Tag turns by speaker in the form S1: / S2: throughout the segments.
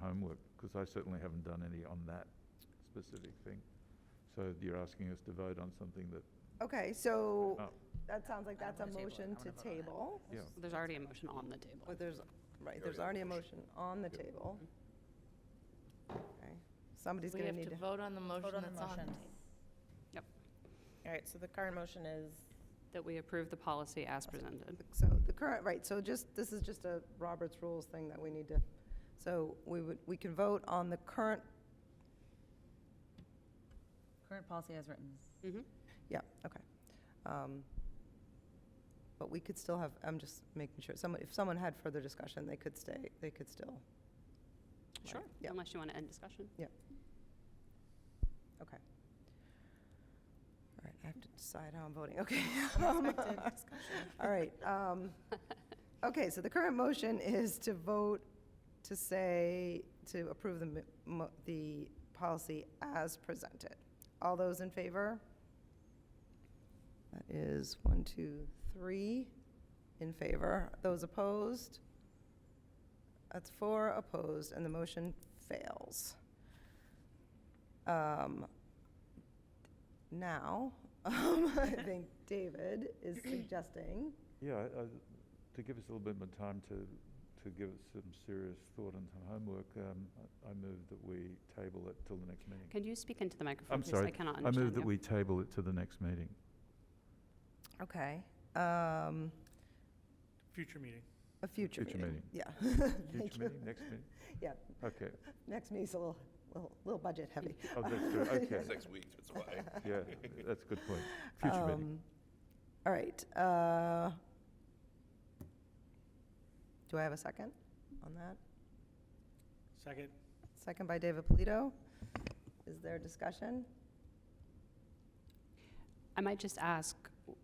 S1: homework, because I certainly haven't done any on that specific thing. So you're asking us to vote on something that,
S2: Okay, so
S1: Oh.
S2: that sounds like
S3: I
S2: that's a
S3: wanna table it. I
S2: motion
S3: wanna
S2: to
S3: vote on it.
S2: table.
S1: yeah,
S3: There's already a motion on the table.
S2: But there's, right, there's already a motion on the table. Okay, Somebody's
S4: We
S2: gonna
S4: have
S2: need
S4: to
S2: to,
S4: vote on the motion
S5: Vote on the
S4: that's on.
S5: motion.
S3: Yep.
S5: All right, so the current motion is,
S3: That we approve the policy as presented.
S2: so the current, right, so just, this is just a Roberts Rules thing that we need to, so we would, we can vote on the current,
S5: current policy as written.
S3: Mhm.
S2: yeah, okay. Um, But we could still have, I'm just making sure, someone, if someone had further discussion, they could stay, they could still,
S3: Sure,
S2: Yep.
S3: unless you want to end discussion.
S2: okay. All right, I have to decide how I'm voting, okay.
S5: Unexpected discussion.
S2: All right. um, Okay, so the current motion is to vote to say, to approve the, m- mo- the policy as presented. All those in favor? That is one, two, three in favor. Those opposed? That's four opposed, and the motion fails. Um, Now, I think David is suggesting
S1: yeah, I- I- to give us a little bit more time to, to give it some serious thought and some homework, um, I- I move that we table it till the next meeting.
S3: Can you speak into the microphone,
S1: I'm
S3: please?
S1: sorry.
S3: I cannot
S1: I
S3: understand
S1: move that
S3: you.
S1: we table it to the next meeting.
S2: Okay, um,
S6: Future meeting.
S2: a future
S1: Future
S2: meeting.
S1: meeting.
S2: Yeah. Thank
S1: Future
S2: you.
S1: meeting, next meeting?
S2: Yeah,
S1: Okay,
S2: next meeting's a little, little, little budget heavy.
S1: oh, that's true, okay,
S7: Six weeks, that's why.
S1: yeah, that's a good point. Future meeting.
S2: Um, All right, uh, do I have a second on that?
S6: Second.
S2: Second by David Polito. Is there discussion?
S3: I might just ask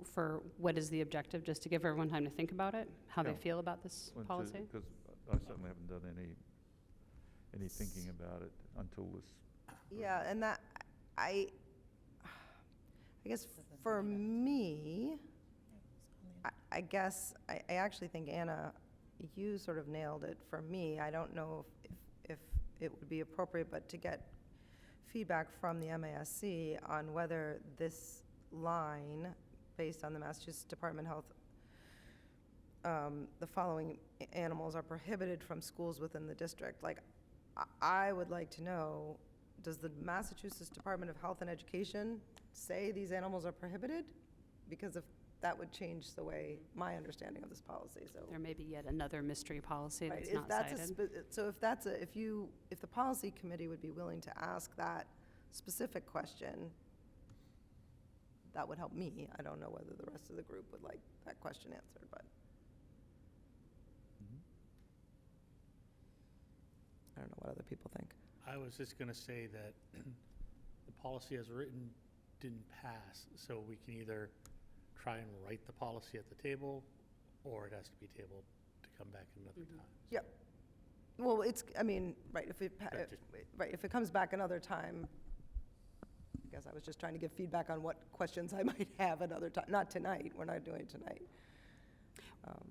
S3: for what is the objective, just to give everyone time to think about it, how they
S1: Yeah.
S3: feel about this policy?
S1: Because I certainly haven't done any, any thinking about it until this.
S2: Yeah, and that, I, I guess for me, I- I guess, I, I actually think, Anna, you sort of nailed it for me. I don't know if, if if it would be appropriate, but to get feedback from the MASC on whether this line, based on the Massachusetts Department of Health, um, the following a- animals are prohibited from schools within the district. Like, I- I would like to know, does the Massachusetts Department of Health and Education say these animals are prohibited? Because if, that would change the way, my understanding of this policy, so.
S3: There may be yet another mystery policy
S2: Right,
S3: that's
S2: if
S3: not
S2: that's a
S3: cited.
S2: spe- So if that's a, if you, if the policy committee would be willing to ask that specific question, that would help me. I don't know whether the rest of the group would like that question answered, but I don't know what other people think.
S6: I was just going to say that the policy as written didn't pass, so we can either try and write the policy at the table, or it has to be tabled to come back another time.
S2: Yep. Well, it's, I mean, right, if it, pa-
S6: Yeah,
S2: if-
S6: just-
S2: right, if it comes back another time, I guess I was just trying to give feedback on what questions I might have another time, not tonight, we're not doing it tonight. Um,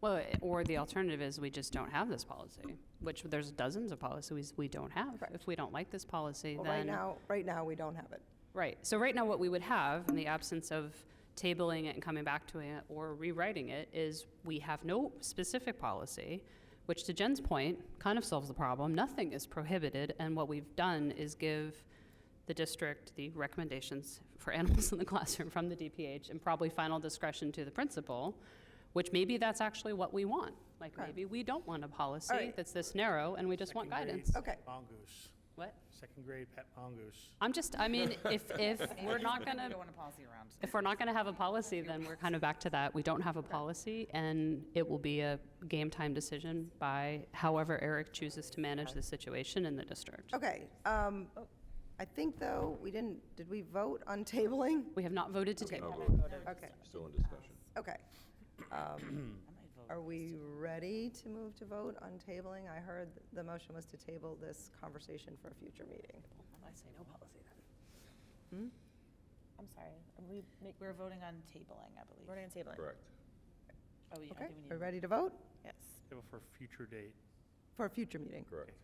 S3: Well, i- or the alternative is we just don't have this policy, which there's dozens of policies we don't have.
S2: Correct.
S3: If we don't like this policy,
S2: Well, right
S3: then.
S2: now, right now, we don't have it.
S3: Right. So right now, what we would have, in the absence of tabling it and coming back to it or rewriting it, is we have no specific policy, which to Jen's point, kind of solves the problem. Nothing is prohibited, and what we've done is give the district the recommendations for animals in the classroom from the DPH and probably final discretion to the principal, which maybe that's actually what we want. Like,
S2: Right.
S3: maybe we don't want a policy
S2: right.
S3: that's this narrow, and we just want
S6: Second grade
S3: guidance.
S2: Okay.
S6: Mongoose,
S3: What?
S6: second grade pet mongoose.
S3: I'm just, I mean, if, if we're not going
S5: You
S3: to
S5: don't want a policy around.
S3: if we're not going to have a policy, then we're kind of back to that. We don't have a policy, and it will be a game time decision by however Eric chooses to manage the situation in the district.
S2: Okay, um, I think though, we didn't, did we vote on tabling?
S3: We have not voted to table.
S2: Okay,
S7: Still in discussion.
S2: okay. Um, Are we ready to move to vote on tabling? I heard th- the motion was to table this conversation for a future meeting.
S3: I say no policy then.
S5: Hmm? I'm sorry, are we make,
S4: We're voting on tabling, I believe.
S5: we're going to table it.
S7: Correct.
S4: Oh, yeah, I
S2: Okay,
S4: think we need
S2: are
S4: to
S2: we ready to vote?
S5: Yes.
S6: Table for a future date.
S2: For a future meeting?
S7: Correct.